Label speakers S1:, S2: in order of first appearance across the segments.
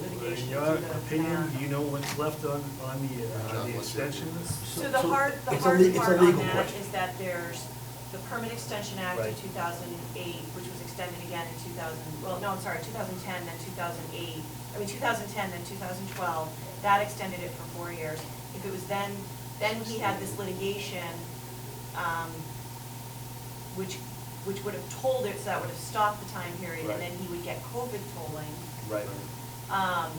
S1: in your opinion, do you know what's left on, on the, uh, the extension?
S2: So the hard, the
S3: it's a
S2: hard
S3: le- it's a
S2: part on
S3: legal
S2: that
S3: question.
S2: is that there's the Permit Extension Act of
S1: Right.
S2: 2008, which was extended again in 2000, well, no, I'm sorry, 2010, then 2008, I mean, 2010, then 2012, that extended it for four years. If it was then, then he had this litigation, um, which, which would have told it, so that would have stopped the time period,
S1: Right.
S2: and then he would get COVID tolling.
S1: Right.
S2: Um,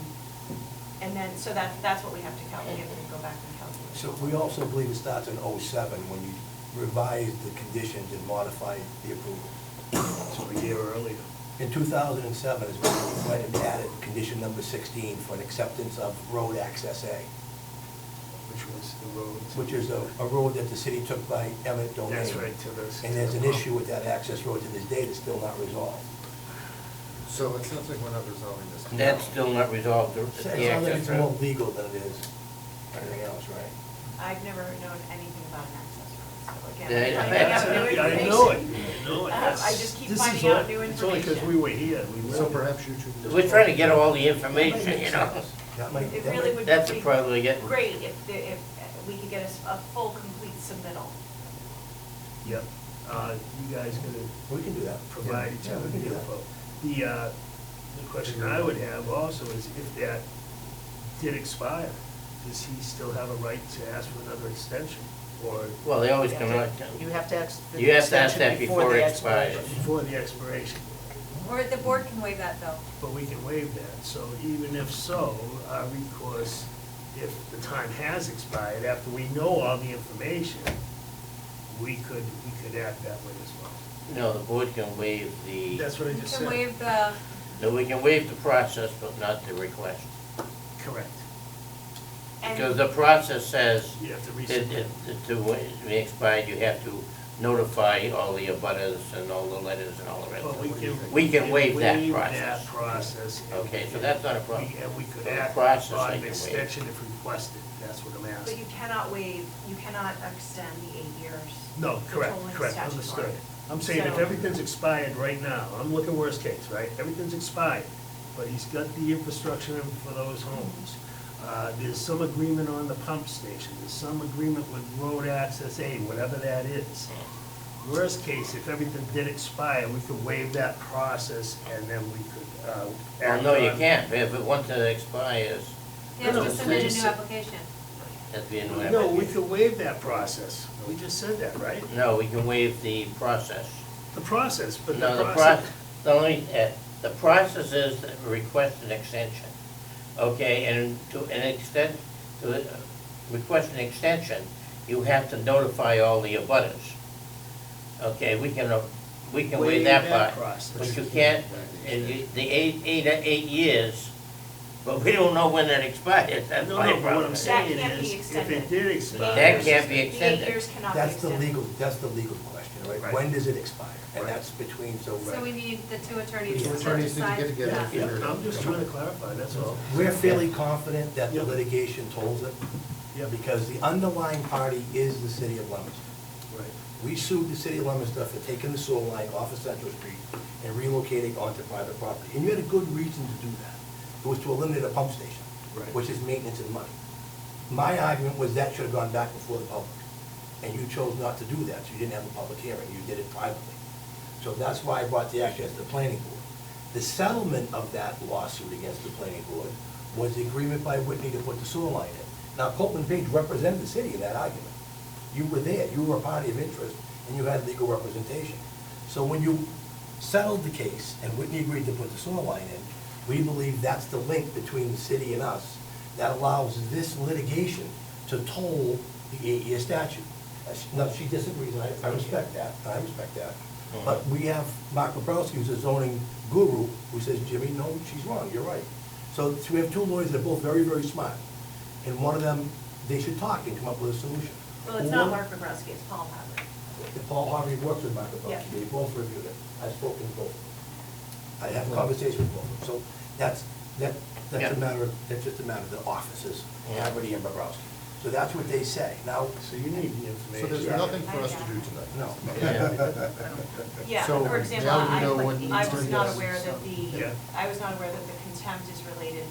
S2: And then, so that, that's what we have to calculate, we have to go back and calculate.
S3: So we also believe it starts in '07 when you revised the conditions and modified the approval.
S1: So a year earlier.
S3: In 2007 is when we went and added condition number 16 for an acceptance of road access A,
S1: Which was the road.
S3: which is a a road that the city took by eminent domain.
S1: That's right, to this-
S3: And there's an issue with that access road to this day that's still not resolved.
S4: So it sounds like we're not resolving this.
S5: That's still not resolved, the
S3: It
S5: the
S3: sounds like
S5: access
S3: it's more
S5: road.
S3: legal than it is anything else, right?
S2: I've never known anything about an access road, so again.
S5: Yeah,
S2: I'm
S5: I-
S2: finding out new
S1: Yeah, I know it, I know it,
S2: Uh, I
S1: yes.
S2: just keep
S1: This is
S2: finding out
S1: all-
S2: new
S1: It's only because
S2: information.
S1: we were here, we
S4: So
S1: learned.
S4: perhaps you two.
S5: We're trying to get all the information, you know?
S3: That might,
S2: It
S3: that
S2: really
S3: might-
S2: would be.
S5: That's the problem we get.
S2: Great if, the- if uh, we could get a, s- a full, complete submittal.
S1: Yep. Uh, you guys gonna
S3: we can do that.
S1: provide each
S3: Yeah,
S1: other
S3: we can do
S1: the
S3: that.
S1: info. The, uh, the question I would have also is if that did expire, does he still have a right to ask for another extension? Or
S5: Well, they always come out,
S6: You have to ask. the
S5: You have to ask that
S6: extension
S5: before
S6: the
S5: it expires.
S6: expiration.
S1: before the expiration,
S7: Or the board can waive that though.
S1: but we can waive that. So even if so, our recourse, if the time has expired, after we know all the information, we could, we could act that way as well.
S5: no, the board can waive the,
S1: That's what I
S7: You
S1: just
S7: can
S1: said.
S7: waive the,
S5: no, we can waive the process, but not the request.
S1: Correct.
S2: And-
S5: Because the process says
S1: You have to
S5: that
S1: resubmit.
S5: it- that to, wa- to be expired, you have to notify all the abutters and all the letters and all the rest
S1: But
S5: of
S1: we
S5: it.
S1: can.
S5: We can waive that
S1: waive
S5: process.
S1: that process and-
S5: Okay, so that's not a problem.
S1: We- And we could
S5: The
S1: act
S5: process I
S1: on
S5: can
S1: an
S5: waive.
S1: extension if requested, that's what I'm
S2: But you
S1: asking.
S2: cannot waive, you cannot extend the eight years.
S1: No,
S2: The
S1: correct,
S2: tolling
S1: correct,
S2: statute
S1: understood.
S2: on it.
S1: I'm saying if
S2: So-
S1: everything's expired right now, I'm looking worst case, right? Everything's expired, but he's got the infrastructure in for those homes. Uh, There's some agreement on the pump station, there's some agreement with road access A, whatever that is. Worst case, if everything did expire, we could waive that process and then we could uh,
S5: Well,
S1: act
S5: no, you
S1: on-
S5: can't, if it, once it expires,
S7: they have
S1: No,
S7: to
S1: no,
S7: submit a
S1: please.
S7: new application.
S5: that'd be a new
S1: No, we
S5: application.
S1: could waive that process. We just said that, right?
S5: No, we can waive the process.
S1: The process, but
S5: No,
S1: the
S5: the pro,
S1: process.
S5: the only, uh, the process is that request an extension, okay, and to an extent, to uh, request an extension, you have to notify all the abutters. Okay, we can, uh, we can waive that part,
S1: process.
S5: but you can't, and you, the eight, eight, eight years, but we don't know when that expires, that's
S1: No,
S5: my
S1: no, but what I'm
S5: problem.
S1: saying
S2: can't be
S1: is, if it
S2: extended.
S1: did expire.
S5: That can't be
S2: The eight
S5: extended.
S2: years cannot be
S3: That's the
S2: extended.
S3: legal, that's the legal question,
S1: Right.
S3: right? When does it expire? And
S1: Right.
S3: that's between, so.
S7: So we need the two
S3: The
S7: attorneys
S3: two
S7: to
S4: attorneys need to
S7: decide
S4: get together.
S7: that.
S1: Yeah, I'm just trying to clarify, that's all.
S3: We're fairly confident that the
S1: Yeah.
S3: litigation tolls it.
S1: Yeah.
S3: Because the underlying party is the city of Leominster.
S1: Right.
S3: We sued the city of Leominster for taking the sewer line off of Central Street and relocating onto private property. And you had a good reason to do that. It was to eliminate a pump station,
S1: Right.
S3: which is maintenance and money. My argument was that should have gone back before the public. And you chose not to do that, so you didn't have a public hearing, you did it privately. So that's why I brought the action as the planning board. The settlement of that lawsuit against the planning board was the agreement by Whitney to put the sewer line in. Now, Copeland Page represented the city in that argument. You were there, you were a party of interest, and you had legal representation. So when you settled the case and Whitney agreed to put the sewer line in, we believe that's the link between the city and us that allows this litigation to toll the eight-year statute. Uh, she- Now, she disagrees, and I, I respect that, I respect that. But we have Mark Bobrowski, who's a zoning guru, who says, Jimmy, no, she's wrong, you're right. So, so we have two lawyers that are both very, very smart, and one of them, they should talk and come up with a solution.
S2: Well, it's not
S3: Or-
S2: Mark Bobrowski, it's Paul Howard.
S3: if Paul Harvey works with Michael
S2: Yeah.
S3: Bucky, they both reviewed it, I've spoken to both. I have conversations with both of them, so that's, that, that's
S5: Yeah.
S3: a matter, of that's just a matter of the offices,
S5: Yeah.
S3: Haverty and Bobrowski. So that's what they say, now,
S1: So you need the
S4: So
S1: information.
S4: there's nothing for us to do tonight.
S3: no.
S2: Yeah,
S4: So
S2: for example,
S4: now we
S2: I,
S4: know what
S2: I
S4: needs to
S2: was
S4: be
S2: not
S4: done.
S2: aware that the,
S1: Yeah.
S2: I was not aware that the contempt is related